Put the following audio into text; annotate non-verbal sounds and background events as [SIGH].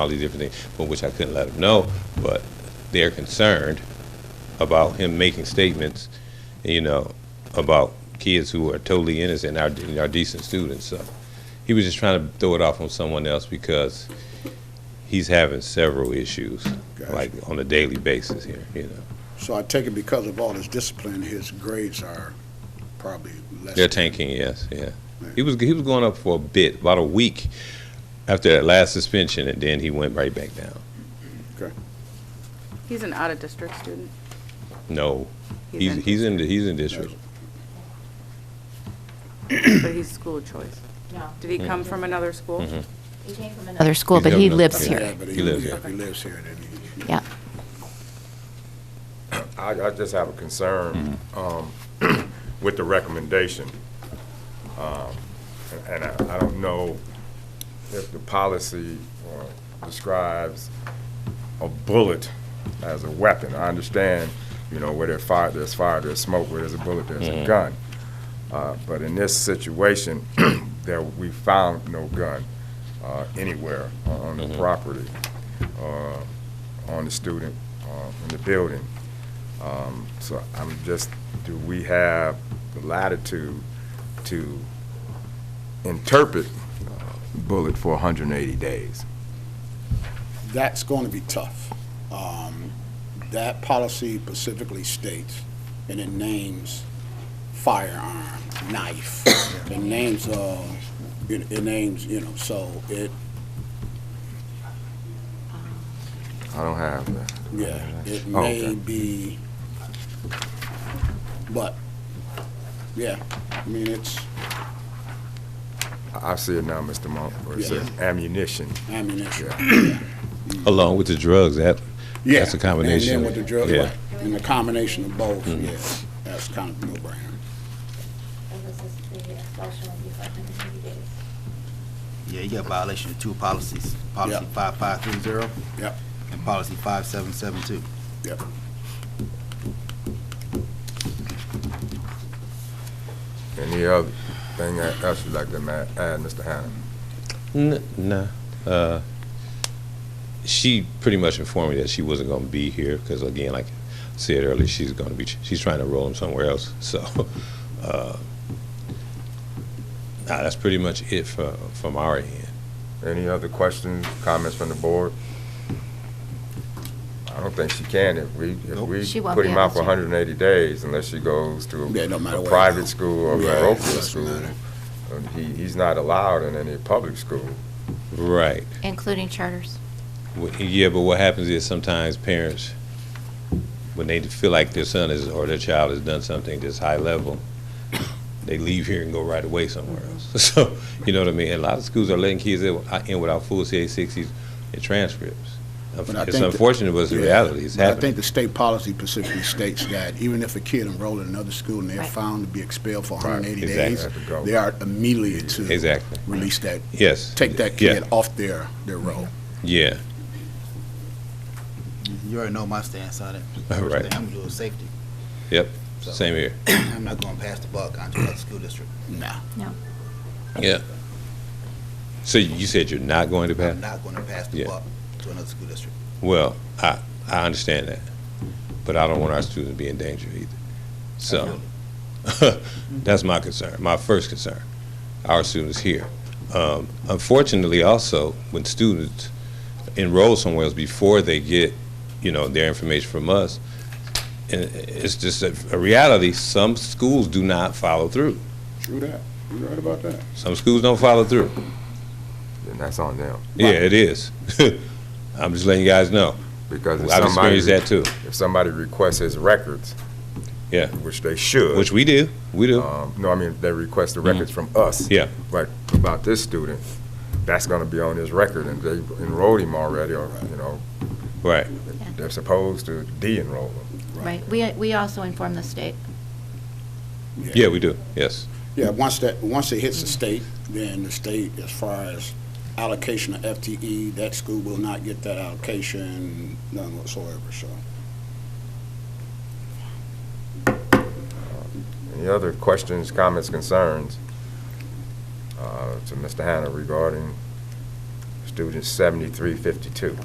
all these different things, but which I couldn't let them know, but they're concerned about him making statements, you know, about kids who are totally innocent, are, are decent students, so. He was just trying to throw it off on someone else because he's having several issues, Gotcha. like on a daily basis here, you know. So I take it because of all his discipline, his grades are probably less. They're tanking, yes, yeah. Right. He was he was going up for a bit, about a week after that last suspension, and then he went right back down. He's an out-of-district student. No, He's he's he's in the- he's in district. in- But he's school of choice. No, Did he come from another school? Mhm. he came from another Other school, He's but he governor. lives Yeah, here. but He lives if here. He lives here, then he. Yeah. I, I just have a concern um, [CLEARS THROAT] with the recommendation. Um, And I, I don't know if the policy uh, describes a bullet as a weapon. I understand, you know, where there's fire, there's fire, there's smoke, where there's a bullet, there's a gun. Uh, But in this situation, [CLEARS THROAT] there, we found no gun uh, anywhere on the property, uh, on the student, uh, in the building. Um, So I'm just, do we have the latitude to interpret uh, bullet for 180 days? That's going to be tough. Um, That policy specifically states, and it names firearm, knife, it names, uh, it it names, you know, so it, I don't have that. Yeah, it Oh, okay. may be, but, yeah, I mean, it's I I see it now, Mr. Monk, where it says ammunition. ammunition. Along with the drugs, that Yeah, that's a combination. And then with the drugs, yeah. Mm-hmm. right, and the combination of both, yeah, that's kind of no brainer. And this is the uh, expulsion will be for 180 days. Yeah, you got violation of two policies, policy Yep. 5530 Yep, and policy 5772. yep. Any other thing that- else you'd like to ma- add, Mr. Hannah? N- nah. Uh, she pretty much informed me that she wasn't going to be here because, again, like I said earlier, she's going to be she's trying to roll him somewhere else. [LAUGHS] So, uh, nah, that's pretty much it for, from our end. Any other questions, comments from the board? I don't think she can if we, if She we won't put be him able out for to. 180 days unless she goes to Yeah, no matter a what. private school or Yeah, a local doesn't school. matter. Um, He, he's not allowed in any public school. Right. Including charters. Wh- Yeah, but what happens is sometimes parents, when they feel like their son is, or their child has done something that's high level, they leave here and go right away somewhere else. [LAUGHS] So, you know what I mean? And a lot of schools are letting kids in, uh, in without full CA sixties and transcripts. But I It's think that- unfortunate, but it's the Yeah. reality. It's But I happening. think the state policy specifically states that even if a kid enrolled in another school and they're found to be expelled for 180 exactly. days, Have to go. they are immediately to Exactly. release that, Yes. take that Yeah. kid off their, their roll. Yeah, You already know my stance on it. All right. First thing, I'm gonna do is safety. [CLEARS THROAT] yep, So- same here. I'm not gonna pass the buck onto another school district. Nah. Yeah. So you said you're not going to pass? I'm not gonna pass the Yeah. buck to another school district. Well, I, I understand that, but I don't want our students to be in danger either. So, [LAUGHS] that's my concern, my first concern, our students here. Um, unfortunately, also, when students enroll somewhere else before they get, you know, their information from us, and it's just a, a reality, some schools do not follow through. True that. You're right about that. Some schools don't follow through. And that's on them. Yeah, it is. [LAUGHS] I'm just letting you guys know. Because if I've somebody, experienced that too, if somebody requests his records. Yeah. Which they should. which we do, we do. um, No, I mean, they request the records from us. Yeah. Right, about this student, that's gonna be on his record, and they enrolled him already, or, you know, Right. they're supposed to de-enroll him. Right. We, we also inform the state. Yeah, we do, yes. Yeah, once that, once it hits the state, then the state, as far as allocation of FTE, that school will not get that allocation, none whatsoever, so. Any other questions, comments, concerns uh, to Mr. Hannah regarding students seventy-three fifty-two.